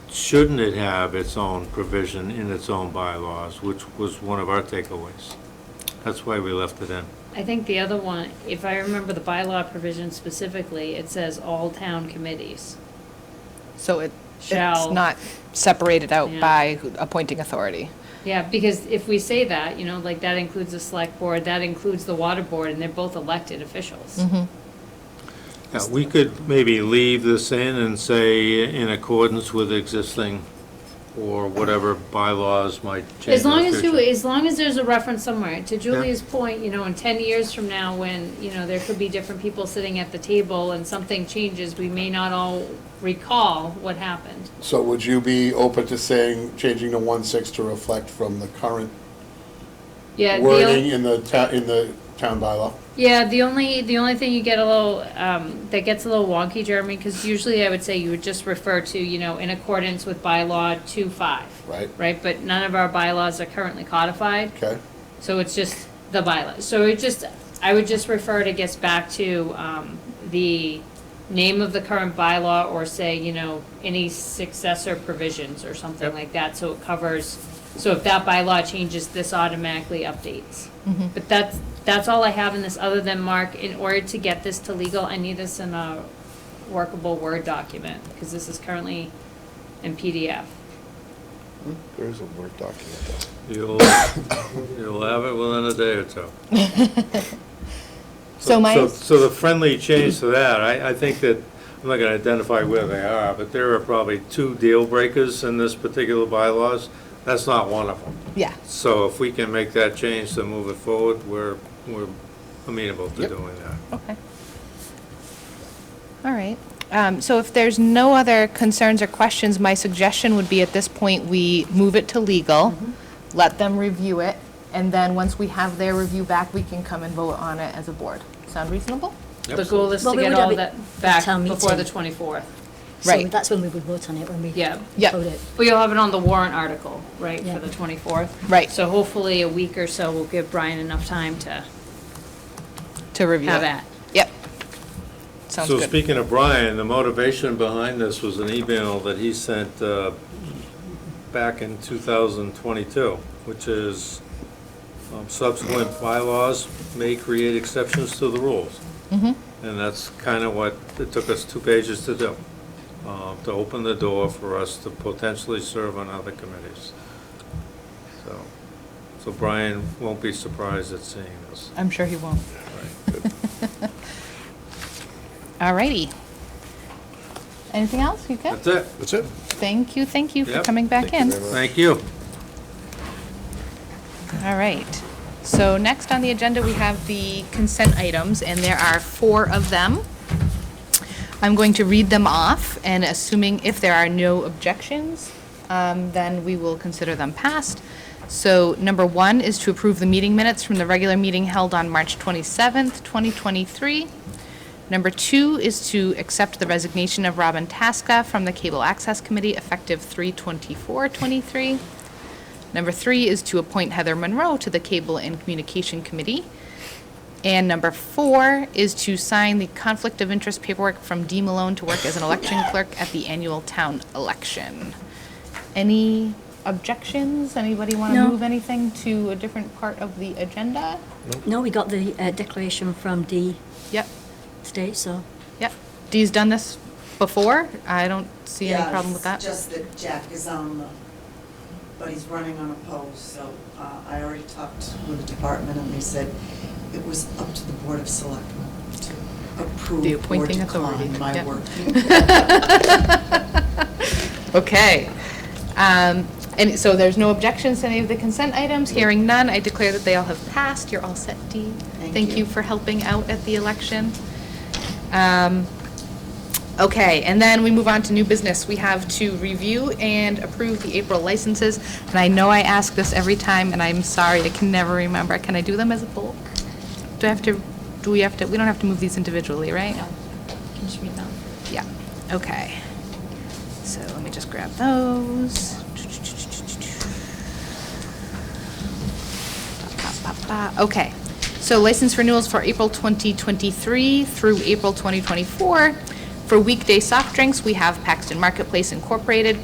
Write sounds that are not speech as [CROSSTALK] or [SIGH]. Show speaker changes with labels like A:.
A: shouldn't it have its own provision in its own bylaws, which was one of our takeaways? That's why we left it in.
B: I think the other one, if I remember the bylaw provision specifically, it says all town committees.
C: So it, it's
B: Shall.
C: not separated out
B: Yeah.
C: by who- appointing authority.
B: Yeah, because if we say that, you know, like that includes the select board, that includes the water board, and they're both elected officials.
A: Yeah, we could maybe leave this in and say in accordance with existing or whatever bylaws might change.
B: As long
A: in the
B: as you,
A: future.
B: as long as there's a reference somewhere, to Julie's point, you know, in ten years from now, when, you know, there could be different people sitting at the table and something changes, we may not all recall what happened.
D: So would you be open to saying, changing the one-six to reflect from the current
B: Yeah, the-
D: wording in the town, in the town bylaw?
B: Yeah, the only, the only thing you get a little, um, that gets a little wonky, Jeremy, because usually I would say you would just refer to, you know, in accordance with bylaw two five.
D: Right.
B: Right, but none of our bylaws are currently codified,
D: Okay,
B: so it's just the bylaw. So it just, I would just refer to gets back to, um, the name of the current bylaw or say, you know, any successor provisions or something
A: Yep.
B: like that, so it covers, so if that bylaw changes, this automatically updates.
E: Mm-hmm.
B: But that's, that's all I have in this, other than, Mark, in order to get this to legal, I need this in a workable Word document, because this is currently in PDF.
D: Hmm? there is a Word document though.
A: You'll, you'll have it within a day or two.
C: So my,
A: So the friendly change to that, I, I think that, I'm not gonna identify where they are, but there are probably two deal breakers in this particular bylaws. That's not one of them.
C: yeah,
A: So if we can make that change to move it forward, we're, we're amenable to
D: Yep.
A: doing that.
C: okay. All right. Um, So if there's no other concerns or questions, my suggestion would be at this point, we move it to legal,
B: Mm-hmm.
C: let them review it, and then once we have their review back, we can come and vote on it as a board. Sound reasonable?
B: The goal is to
E: Well, we
B: get
E: would
B: all
E: have
B: that
E: it
B: back
E: town
B: before the
E: meeting.
B: twenty-fourth.
E: So
C: Right.
E: that's when we would vote on it, when we
B: Yeah.
C: Yeah.
E: vote it.
B: Well, you'll have it on the warrant article, right,
E: Yeah.
B: for the 24th?
C: Right.
B: So hopefully a week or so will give Brian enough time to
C: To review it?
B: have at.
C: Yep. Sounds
A: So
C: good.
A: speaking of Brian, the motivation behind this was an email that he sent uh, back in 2022, which is um, subsequent bylaws may create exceptions to the rules.
C: Mm-hmm.
A: And that's kind of what it took us two pages to do, uh, to open the door for us to potentially serve on other committees. So, so Brian won't be surprised at seeing this.
C: I'm sure
A: [LAUGHS]
C: he won't. All righty. Anything else? You good?
A: That's it.
D: That's it.
C: Thank you, thank you for
A: Yep.
C: coming back in.
A: Thank you.
C: All right. So next on the agenda, we have the consent items, and there are four of them. I'm going to read them off, and assuming if there are no objections, um, then we will consider them passed. So number one is to approve the meeting minutes from the regular meeting held on March 27th, 2023. Number two is to accept the resignation of Robin Tasca from the Cable Access Committee effective 3/24/23. Number three is to appoint Heather Monroe to the Cable and Communication Committee. And number four is to sign the conflict of interest paperwork from Dee Malone to work as an election clerk at the annual town election. Any objections? Anybody want to
E: No.
C: move anything to a different part of the agenda?
E: No, we got the uh, declaration from Dee
C: Yep,
E: today, so
C: yep. Dee's done this before. I don't see any
F: Yeah,
C: problem with that.
F: it's just that Jack is on the, but he's running on a post, so uh, I already talked with the department, and they said it was up to the Board of Selectmen to
C: The
F: approve or
C: appointing authority,
F: decline my
C: yeah.
F: work.
C: [LAUGHS]
F: [LAUGHS]
C: Okay. Um, And so there's no objections to any of the consent items? Hearing none, I declare that they all have passed. You're all set, Dee.
F: Thank
C: Thank you
F: you.
C: for helping out at the election. Um, Okay, and then we move on to new business. We have to review and approve the April licenses. And I know I ask this every time, and I'm sorry, I can never remember. Can I do them as a bulk? Do I have to, do we have to, we don't have to move these individually, right?
B: Can you read that?
C: Yeah, okay. So let me just grab those. Ba, ba, ba. Okay, so license renewals for April 2023 through April 2024. For weekday soft drinks, we have Paxton Marketplace Incorporated,